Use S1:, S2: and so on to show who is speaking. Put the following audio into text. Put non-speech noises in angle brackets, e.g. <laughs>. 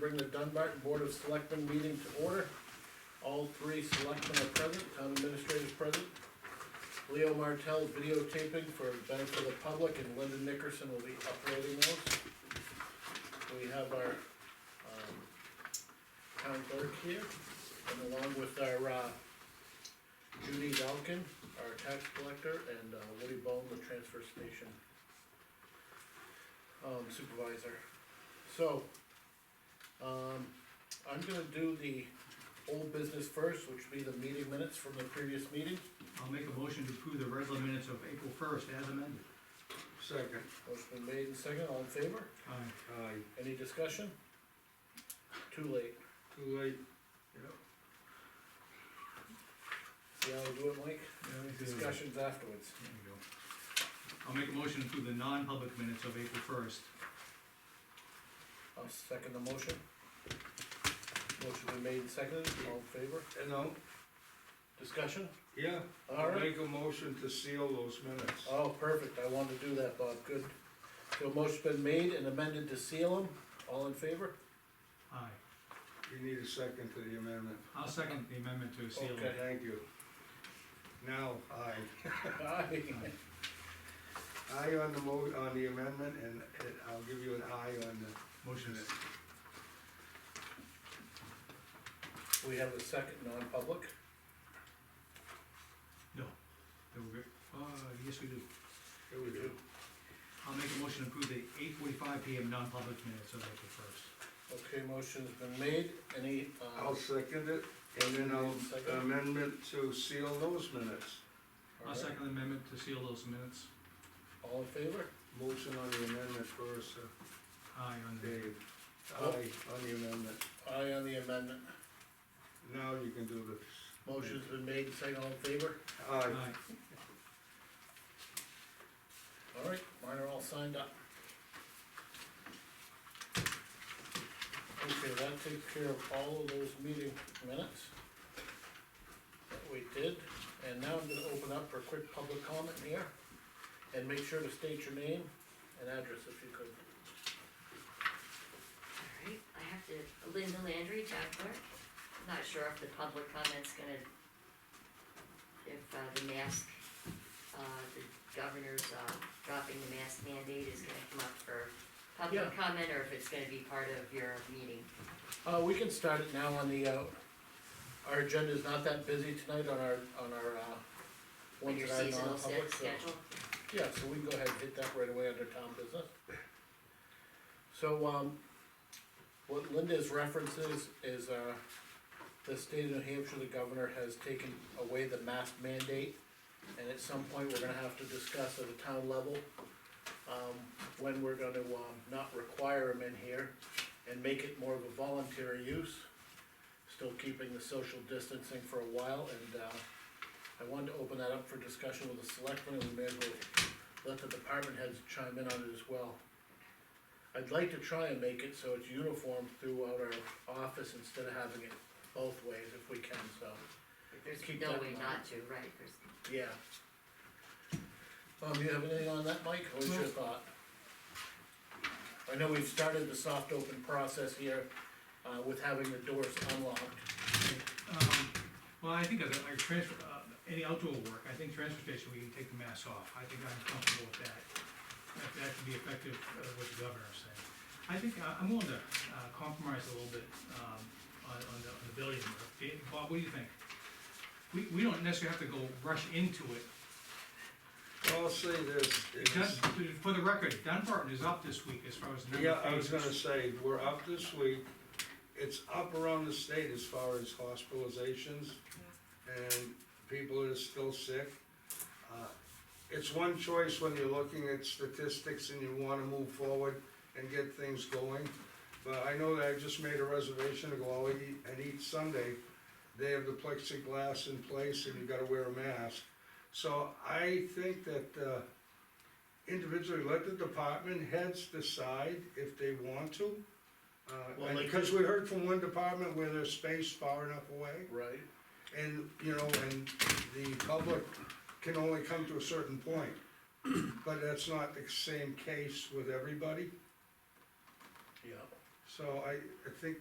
S1: bring the Dunbarton Board of Selectmen meeting to order. All three selectmen are present, town administrator is present. Leo Martell videotaping for benefit of the public, and Linda Nickerson will be uploading those. We have our, um, town clerk here, and along with our, uh, Judy Dalkin, our tax collector, and uh, Woody Bone, the transfer station um, supervisor. So, um, I'm gonna do the old business first, which would be the meeting minutes from the previous meeting.
S2: I'll make a motion to approve the regular minutes of April first as amended.
S3: Second.
S1: Motion been made and second, all in favor?
S2: Aye.
S3: Aye.
S1: Any discussion? Too late.
S3: Too late.
S1: See how we do it, Mike? Discussions afterwards.
S2: There we go. I'll make a motion to approve the non-public minutes of April first.
S1: I'll second the motion. Motion been made and seconded, all in favor?
S3: You know,
S1: Discussion?
S3: yeah, Uh,
S1: All right.
S3: make a motion to seal those minutes.
S1: Oh, perfect, I wanted to do that, Bob, good. So motion's been made and amended to seal them, all in favor? <laughs>
S2: Aye.
S3: You need a second to the amendment.
S2: I'll second the amendment to seal
S1: Okay.
S2: it.
S3: Thank you. Now, aye.
S1: Aye.
S3: Aye on the mo, on the amendment, and and I'll give you an aye on
S2: Motion is,
S1: We have a second non-public,
S2: no. There we go. Uh, yes, we do.
S3: the, here we go.
S2: I'll make a motion to approve the eight forty-five PM non-public minutes of April first.
S1: okay, motion's been made, any, uh,
S3: I'll second it, and then I'll
S1: Second.
S3: amendment to seal those minutes.
S2: I'll second the amendment to seal those minutes.
S1: all in favor?
S3: Motion on the amendment first, uh,
S2: Aye on the,
S3: Dave. Aye on the amendment.
S1: Aye on the amendment,
S3: Now you can do this.
S1: motion's been made, second all in favor,
S3: Aye.
S2: aye.
S1: all right, mine are all signed up. Okay, that takes care of all of those meeting minutes that we did, and now I'm gonna open up for a quick public comment here, and make sure to state your name and address if you could.
S4: Alright, I have to, Linda Landry, town clerk, I'm not sure if the public comment's gonna, if, uh, the mask, uh, the governor's, uh, dropping the mask mandate is gonna come up for public
S1: Yeah.
S4: comment, or if it's gonna be part of your meeting.
S1: Uh, we can start it now on the, uh, our agenda's not that busy tonight on our, on our, uh,
S4: When
S1: ones
S4: your
S1: that are
S4: seasonal
S1: non-public,
S4: set
S1: so.
S4: schedule,
S1: Yeah, so we can go ahead and hit that right away under town business. So, um, what Linda's references is, uh, the state of New Hampshire, the governor has taken away the mask mandate. And at some point, we're gonna have to discuss at a town level, um, when we're gonna, um, not require them in here and make it more of a voluntary use. Still keeping the social distancing for a while and, uh, I wanted to open that up for discussion with the selectmen, and we may as well let the department heads chime in on it as well. I'd like to try and make it so it's uniform throughout our office instead of having it both ways if we can, so,
S4: if there's
S1: Keep
S4: no
S1: that
S4: way
S1: in
S4: not to, right, there's,
S1: yeah. Um, you have anything on that, Mike, or was your
S2: No.
S1: thought? I know we've started the soft open process here, uh, with having the doors unlocked,
S2: Um, Well, I think as a, like transfer, uh, any outdoor work, I think transfer station, we can take the mask off, I think I'm comfortable with that. That, that could be effective uh, with the governor saying. I think, I- I'm willing to uh, compromise a little bit, um, on, on the, on the building work. Dave, Bob, what do you think? We, we don't necessarily have to go rush into it,
S3: I'll say this.
S2: Dun-
S3: it's-
S2: for the record, Dunbarton is up this week as far as number
S3: Yeah,
S2: of
S3: I was gonna
S2: cases.
S3: say, we're up this week. It's up around the state as far as hospitalizations and people that are still sick. Uh, It's one choice when you're looking at statistics and you wanna move forward and get things going. But I know that I just made a reservation to go out eat- and eat Sunday. They have the plexiglass in place and you gotta wear a mask. So I think that, uh, individually, let the department heads decide if they want to. Uh,
S1: Well,
S3: and
S1: like-
S3: because we heard from one department where there's space far enough away,
S1: right?
S3: and, you know, and the public can only come to a certain point. <clears throat> But that's not the same case with everybody,
S1: Yeah.
S3: So I, I think